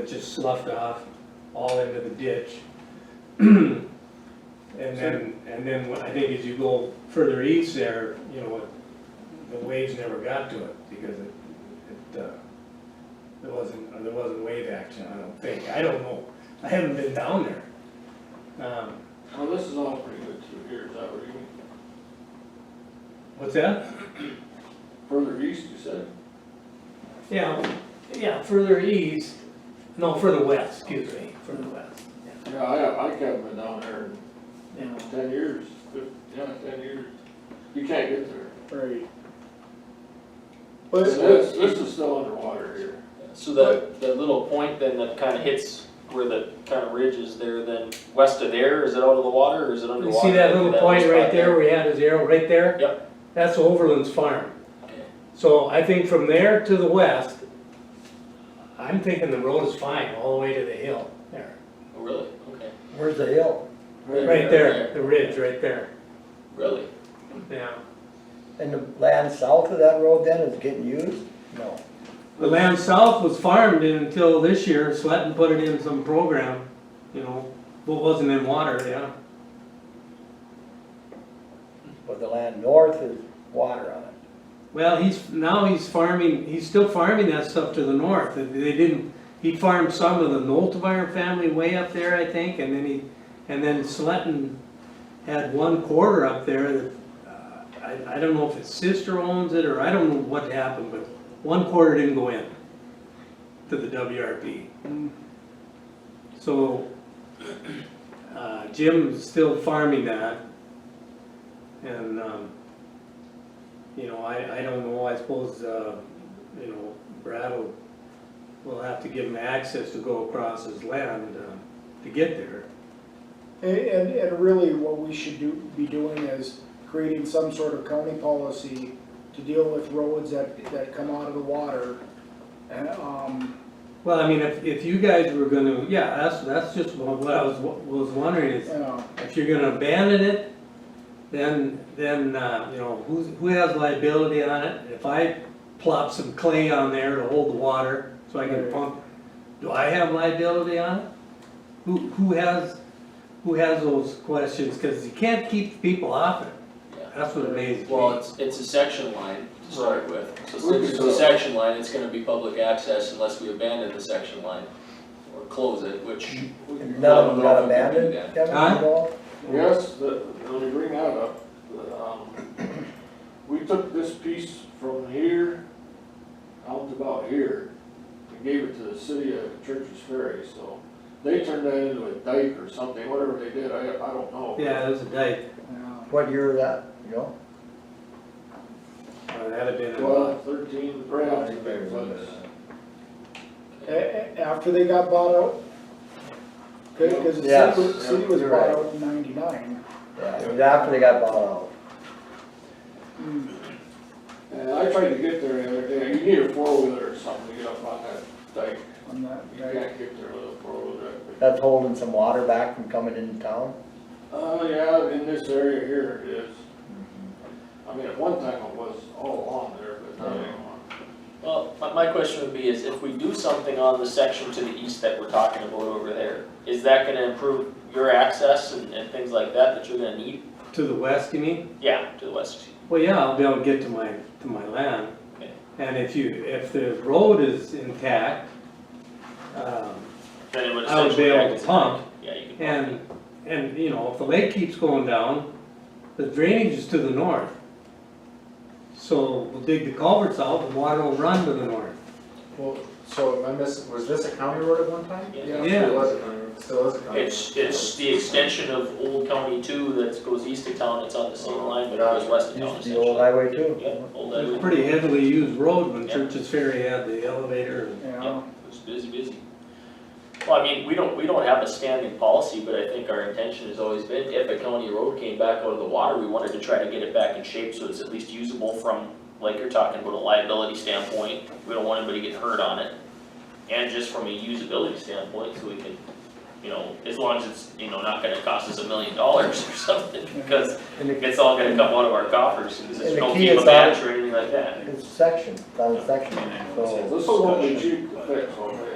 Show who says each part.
Speaker 1: It just sloughed off all into the ditch. And then, and then when- I think as you go further east there, you know, it- the waves never got to it because it, it, uh, there wasn't, or there wasn't wave action, I don't think, I don't know, I haven't been down there. Um,
Speaker 2: Well, this is all pretty good through here, is that what you mean?
Speaker 1: What's that?
Speaker 2: Further east, you said?
Speaker 1: Yeah, yeah, further east, no, further west, excuse me, further west,
Speaker 2: Yeah, I, I haven't been down there
Speaker 1: yeah.
Speaker 2: in ten years, fif- yeah, ten years. You can't get there.
Speaker 1: Right.
Speaker 3: Well,
Speaker 2: This,
Speaker 3: it's-
Speaker 2: this is still underwater here.
Speaker 3: So that, that little point then that kind of hits where the kind of ridge is there, then west of there, is it out of the water or is it
Speaker 1: You
Speaker 3: underwater?
Speaker 1: see that little point
Speaker 3: spot
Speaker 1: right there where he had his arrow, right there?
Speaker 3: Yep.
Speaker 1: That's Overland's farm.
Speaker 3: Okay.
Speaker 1: So I think from there to the west, I'm thinking the road is fine, all the way to the hill there.
Speaker 3: Oh, really? Okay,
Speaker 4: Where's the hill?
Speaker 1: Right there, the ridge, right there,
Speaker 3: really?
Speaker 1: yeah.
Speaker 4: And the land south of that road then is getting used? No.
Speaker 1: The land south was farmed in until this year, Sletton put it in some program, you know, but wasn't in water, yeah.
Speaker 4: But the land north is water on it.
Speaker 1: Well, he's, now he's farming, he's still farming that stuff to the north, they didn't, he farmed some of the Noltemeyer family way up there, I think, and then he, and then Sletton had one quarter up there that, uh, I, I don't know if his sister owns it, or I don't know what happened, but one quarter didn't go in to the WRP. So, uh, Jim's still farming that, and, um, you know, I, I don't know, I suppose, uh, you know, Brad will, will have to give him access to go across his land, uh, to get there.
Speaker 5: And, and, and really what we should do, be doing is creating some sort of county policy to deal with roads that, that come out of the water. And, um,
Speaker 1: Well, I mean, if, if you guys were gonna, yeah, that's, that's just what what I was, was wondering
Speaker 5: you
Speaker 1: is,
Speaker 5: know,
Speaker 1: if you're gonna abandon it, then, then, uh, you know, who's, who has liability on it? If I plop some clay on there to hold the water, so I can
Speaker 5: Right.
Speaker 1: pump, do I have liability on it? Who, who has, who has those questions, cause you can't keep people off it,
Speaker 3: Yeah.
Speaker 1: that's what amazes me.
Speaker 3: Well, it's, it's a section line to start with. So
Speaker 2: Right.
Speaker 3: since it's a section line, it's gonna be public access unless we abandon the section line or close it, which.
Speaker 4: None of them got abandoned, Kevin,
Speaker 1: Huh?
Speaker 4: at all?
Speaker 2: Yes, the, let me bring that up, the, um, we took this piece from here out to about here, and gave it to the city of Church's Ferry, so they turned that into a dike or something, whatever they did, I, I don't know.
Speaker 1: Yeah, it was a dike,
Speaker 5: yeah.
Speaker 4: What year was that, you know?
Speaker 1: Uh, that'd have been, a-
Speaker 2: Twelve, thirteen, right after the floods.
Speaker 5: A- a- after they got bought out, cause, 'cause the
Speaker 4: Yes,
Speaker 5: city, was- city was
Speaker 4: you're
Speaker 5: bought
Speaker 4: right.
Speaker 5: out in ninety-nine.
Speaker 4: Yeah, it was after they got bought out.
Speaker 5: Hmm,
Speaker 2: And I tried to get there the other day, you need a four-wheeler or something to get up on that dike,
Speaker 5: On that,
Speaker 2: you
Speaker 5: yeah.
Speaker 2: can't get there with a four-wheeler.
Speaker 4: That's holding some water back from coming into town?
Speaker 2: Uh, yeah, in this area here it is. I mean, at one time it was all along there, but not anymore.
Speaker 3: Well, my, my question would be is if we do something on the section to the east that we're talking about over there, is that gonna improve your access and, and things like that that you're gonna need?
Speaker 1: to the west, you mean?
Speaker 3: Yeah, to the west.
Speaker 1: Well, yeah, I'll be able to get to my, to my land.
Speaker 3: Okay.
Speaker 1: And if you, if the road is intact, um,
Speaker 3: Then it would
Speaker 1: I would be
Speaker 3: essentially.
Speaker 1: able to pump,
Speaker 3: Yeah, you can pump.
Speaker 1: and, and, you know, if the lake keeps going down, the drainage is to the north. So we'll dig the culverts out, the water will run to the north.
Speaker 6: Well, so am I missing, was this a county road at one time?
Speaker 3: Yeah.
Speaker 6: It
Speaker 1: Yeah,
Speaker 6: was a county road, it still is a county road.
Speaker 3: It's, it's the extension of Old County Two that goes east of town, it's on the same line, but it goes west of town
Speaker 4: Used to be
Speaker 3: essentially.
Speaker 4: old highway
Speaker 3: Yeah,
Speaker 4: too.
Speaker 3: Old
Speaker 1: it was
Speaker 3: Highway.
Speaker 1: a pretty heavily used road when
Speaker 3: Yeah.
Speaker 1: Church's Ferry had the elevator and
Speaker 5: Yeah,
Speaker 3: Yeah, it was busy, busy. Well, I mean, we don't, we don't have a standing policy, but I think our intention has always been, if a county road came back out of the water, we wanted to try to get it back in shape so it's at least usable from, like you're talking about a liability standpoint, we don't want anybody getting hurt on it. And just from a usability standpoint, so we can, you know, as long as it's, you know, not gonna cost us a million dollars or something, because
Speaker 4: And the-
Speaker 3: it's all gonna come out of our coffers, because
Speaker 4: And
Speaker 3: there's
Speaker 4: the
Speaker 3: no
Speaker 4: key
Speaker 3: FEMA
Speaker 4: is that-
Speaker 3: match or anything like that.
Speaker 4: It's section, it's on section, so.
Speaker 2: This is what we cheap to fix, okay?